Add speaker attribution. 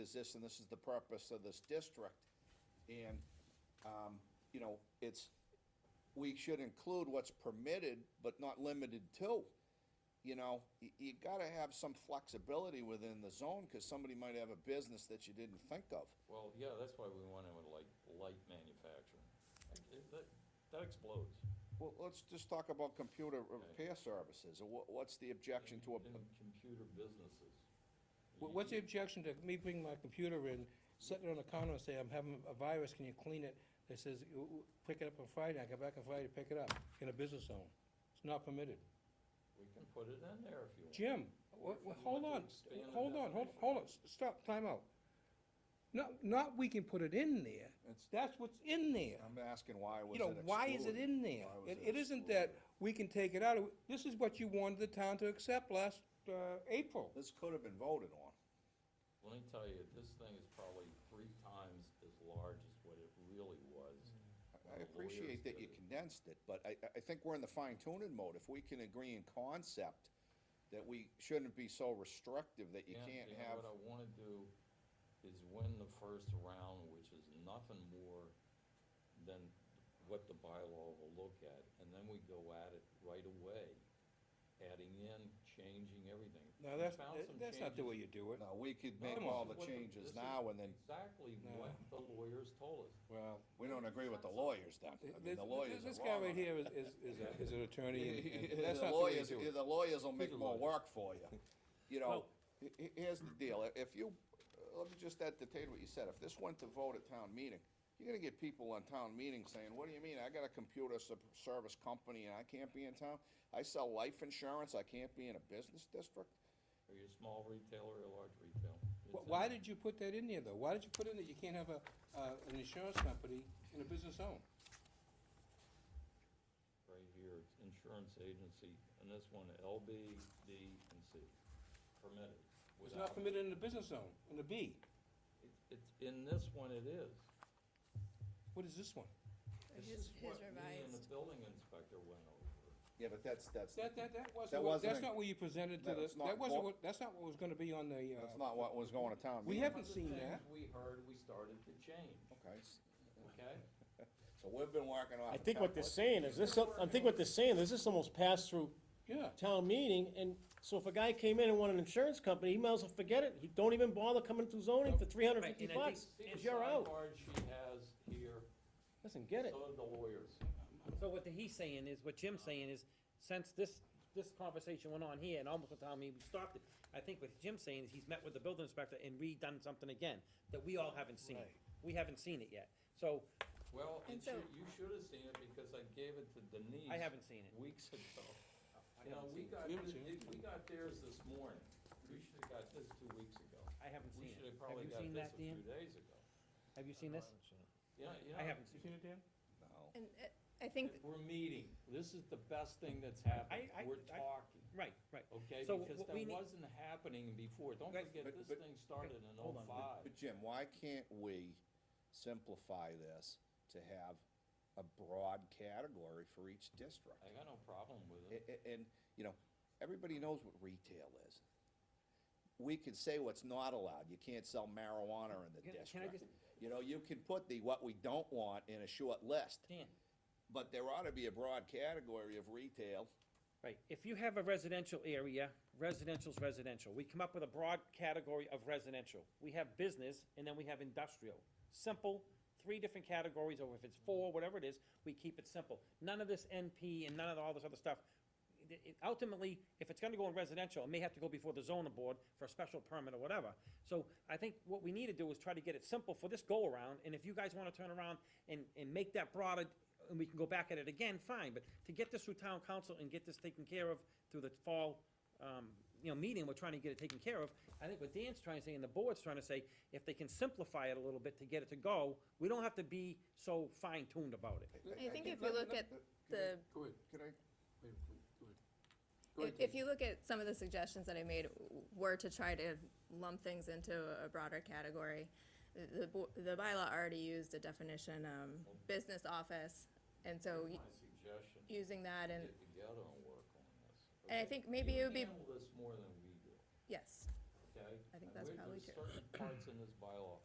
Speaker 1: is this, and this is the purpose of this district. And, um, you know, it's, we should include what's permitted, but not limited to. You know, you, you gotta have some flexibility within the zone, cause somebody might have a business that you didn't think of.
Speaker 2: Well, yeah, that's why we want to like light manufacturing. Like, it- That, that explodes.
Speaker 1: Well, let's just talk about computer repair services, or what, what's the objection to a,
Speaker 2: In computer businesses.
Speaker 3: Wha- What's the objection to me bringing my computer in, setting it on the counter and say, I'm having a virus, can you clean it? It says, "You- you pick it up on Friday, I come back on Friday, to pick it up, in a business zone. It's not permitted.
Speaker 2: We can put it in there if you want.
Speaker 3: Jim, wha- wha- hold on,
Speaker 2: Expand the
Speaker 3: hold on, hold,
Speaker 2: definition.
Speaker 3: hold on, S- stop, time out. Not, not we can put it in there,
Speaker 1: It's-
Speaker 3: that's what's in there.
Speaker 1: I'm asking why was
Speaker 3: You
Speaker 1: it
Speaker 3: know,
Speaker 1: excluded?
Speaker 3: why is it in there?
Speaker 1: Why was
Speaker 3: It, it isn't that
Speaker 1: excluded?
Speaker 3: we can take it out, of- this is what you wanted the town to accept last, uh, April.
Speaker 1: This could have been voted on.
Speaker 2: Let me tell you, this thing is probably three times as large as what it really was. when
Speaker 1: I
Speaker 2: the lawyers
Speaker 1: appreciate that
Speaker 2: did
Speaker 1: you
Speaker 2: it.
Speaker 1: condensed it, but I, I- I think we're in the fine tuning mode. If we can agree in concept that we shouldn't be so restrictive that you
Speaker 2: And,
Speaker 1: can't
Speaker 2: know,
Speaker 1: have,
Speaker 2: What I wanna do is win the first round, which is nothing more than what the bylaw will look at, and then we go at it right away, adding in, changing everything.
Speaker 3: Now,
Speaker 2: We
Speaker 3: that's, eh,
Speaker 2: found some
Speaker 3: that's not the
Speaker 2: changes.
Speaker 3: way you do it.
Speaker 1: no, we could make
Speaker 3: Come
Speaker 1: all
Speaker 3: on.
Speaker 1: the
Speaker 2: What this
Speaker 1: changes
Speaker 2: is
Speaker 1: now and then,
Speaker 2: Exactly
Speaker 3: No.
Speaker 2: what the lawyers told us.
Speaker 3: Well.
Speaker 1: we don't agree with the lawyers then. I mean,
Speaker 3: This,
Speaker 1: the lawyers
Speaker 3: this
Speaker 1: are
Speaker 3: guy
Speaker 1: wrong.
Speaker 3: right
Speaker 1: on that.
Speaker 3: here is, is, is a- is an attorney, and- and that's
Speaker 1: The
Speaker 3: not the way you
Speaker 1: lawyers,
Speaker 3: do it.
Speaker 1: the lawyers will make more
Speaker 2: lawyer?
Speaker 1: work for you. You know,
Speaker 3: Well-
Speaker 1: he- he- here's the deal, if you, uh, let me just entertain what you said, if this went to vote at town meeting, you're gonna get people on town meeting saying, what do you mean, I got a computer sup- service company and I can't be in town? I sell life insurance, I can't be in a business district?
Speaker 2: Are you a small retailer or a large retailer? It's
Speaker 3: Wh-
Speaker 2: in
Speaker 3: Why
Speaker 2: there.
Speaker 3: did you put that in there, though? Why did you put in that you can't have a, uh, an insurance company in a business zone?
Speaker 2: Right here, it's insurance agency, and this one, L, B, D, and C, permitted.
Speaker 3: It's
Speaker 2: without-
Speaker 3: not permitted in a business zone, in a B.
Speaker 2: It- It's, in this one it is.
Speaker 3: What is this one?
Speaker 2: This
Speaker 4: His-
Speaker 2: is what
Speaker 4: his
Speaker 2: me and the
Speaker 4: revised.
Speaker 2: building inspector went over.
Speaker 1: Yeah, but that's, that's,
Speaker 3: That, that, that
Speaker 1: That
Speaker 3: wasn't, what- that's
Speaker 1: wasn't a-
Speaker 3: not what you presented to
Speaker 1: No,
Speaker 3: the,
Speaker 1: it's not
Speaker 3: that wasn't
Speaker 1: important.
Speaker 3: what, that's not what was gonna be on the,
Speaker 1: that's
Speaker 3: uh,
Speaker 1: not what was going to town
Speaker 3: we
Speaker 1: meeting.
Speaker 3: haven't seen
Speaker 2: The
Speaker 3: that.
Speaker 2: things we heard, we started to change,
Speaker 1: Okay, s-
Speaker 2: okay?
Speaker 1: so we've been working on.
Speaker 5: I think what they're saying is this, I think what they're saying is this almost passed through
Speaker 3: Yeah,
Speaker 5: town meeting, and so if a guy came in and wanted an insurance company, he might as well forget it. He don't even bother coming through zoning for three hundred and fifty
Speaker 6: Right, and I
Speaker 5: bucks,
Speaker 2: See the
Speaker 5: 'cause you're out.
Speaker 2: sidebar she has here,
Speaker 5: Doesn't get it.
Speaker 2: so did the lawyers.
Speaker 6: So what the- he's saying is, what Jim's saying is, since this, this conversation went on here, and almost the time we stopped it, I think what Jim's saying is he's met with the building inspector and redone something again, that we all haven't seen. We haven't seen it yet, so
Speaker 2: Well,
Speaker 4: And
Speaker 2: it should-
Speaker 4: so-
Speaker 2: you should have seen it because I gave it to Denise.
Speaker 6: I haven't seen it.
Speaker 2: Weeks ago. You know, we got,
Speaker 3: You haven't seen
Speaker 2: it- we got theirs this morning. We should have got this two weeks ago.
Speaker 6: I haven't
Speaker 2: We
Speaker 6: seen
Speaker 2: should
Speaker 6: it.
Speaker 2: have
Speaker 6: Have
Speaker 2: probably
Speaker 6: you
Speaker 2: got
Speaker 6: seen
Speaker 2: this a
Speaker 6: that,
Speaker 2: few
Speaker 6: Dan?
Speaker 2: days ago.
Speaker 6: Have you seen this?
Speaker 2: You know, you
Speaker 6: I
Speaker 2: know,
Speaker 6: haven't seen it.
Speaker 1: No.
Speaker 4: And uh, I think,
Speaker 2: We're meeting. This is the best thing that's happened.
Speaker 6: I- I-
Speaker 2: We're
Speaker 6: I-
Speaker 2: talking,
Speaker 6: Right, right.
Speaker 2: okay?
Speaker 6: So
Speaker 2: Because
Speaker 6: what we
Speaker 2: that
Speaker 6: need-
Speaker 2: wasn't happening before. Don't
Speaker 6: Guys,
Speaker 2: forget,
Speaker 1: but-
Speaker 2: this
Speaker 1: but-
Speaker 2: thing started in oh
Speaker 6: hold on, but-
Speaker 2: oh-five.
Speaker 1: But Jim, why can't we simplify this to have a broad category for each district?
Speaker 2: I got no problem with
Speaker 1: A-
Speaker 2: it.
Speaker 1: a- And, you know, everybody knows what retail is. We can say what's not allowed, you can't sell marijuana in the
Speaker 6: Can- can I
Speaker 1: district. You know, you can put the what we don't want in a short list,
Speaker 6: Dan,
Speaker 1: but there ought to be a broad category of retail.
Speaker 6: right, if you have a residential area, residential's residential. We come up with a broad category of residential. We have business, and then we have industrial. Simple, three different categories, or if it's four, whatever it is, we keep it simple. None of this NP and none of all this other stuff. It- it- Ultimately, if it's gonna go in residential, it may have to go before the zoning board for a special permit or whatever. So I think what we need to do is try to get it simple for this go-around, and if you guys wanna turn around and, and make that broader, and we can go back at it again, fine, but to get this through town council and get this taken care of through the fall, um, you know, meeting, we're trying to get it taken care of. I think what Dan's trying to say and the board's trying to say, if they can simplify it a little bit to get it to go, we don't have to be so fine-tuned about it.
Speaker 4: I think if you look at the,
Speaker 3: Go ahead,
Speaker 1: Could I
Speaker 3: wait,
Speaker 4: if- if you look at some of the suggestions that I made w- were to try to lump things into a broader category. The- The, bo- the bylaw already used a definition, um, business office, and so
Speaker 2: Here's
Speaker 4: y-
Speaker 2: My suggestion,
Speaker 4: using that and,
Speaker 2: get together and work on this.
Speaker 4: and I
Speaker 2: okay?
Speaker 4: think maybe it would be,
Speaker 2: You handle this more than we do,
Speaker 4: yes.
Speaker 2: okay? okay?
Speaker 4: I think
Speaker 2: and
Speaker 4: that's
Speaker 2: where-
Speaker 4: probably
Speaker 2: there's
Speaker 4: true.
Speaker 2: Certain parts in this bylaw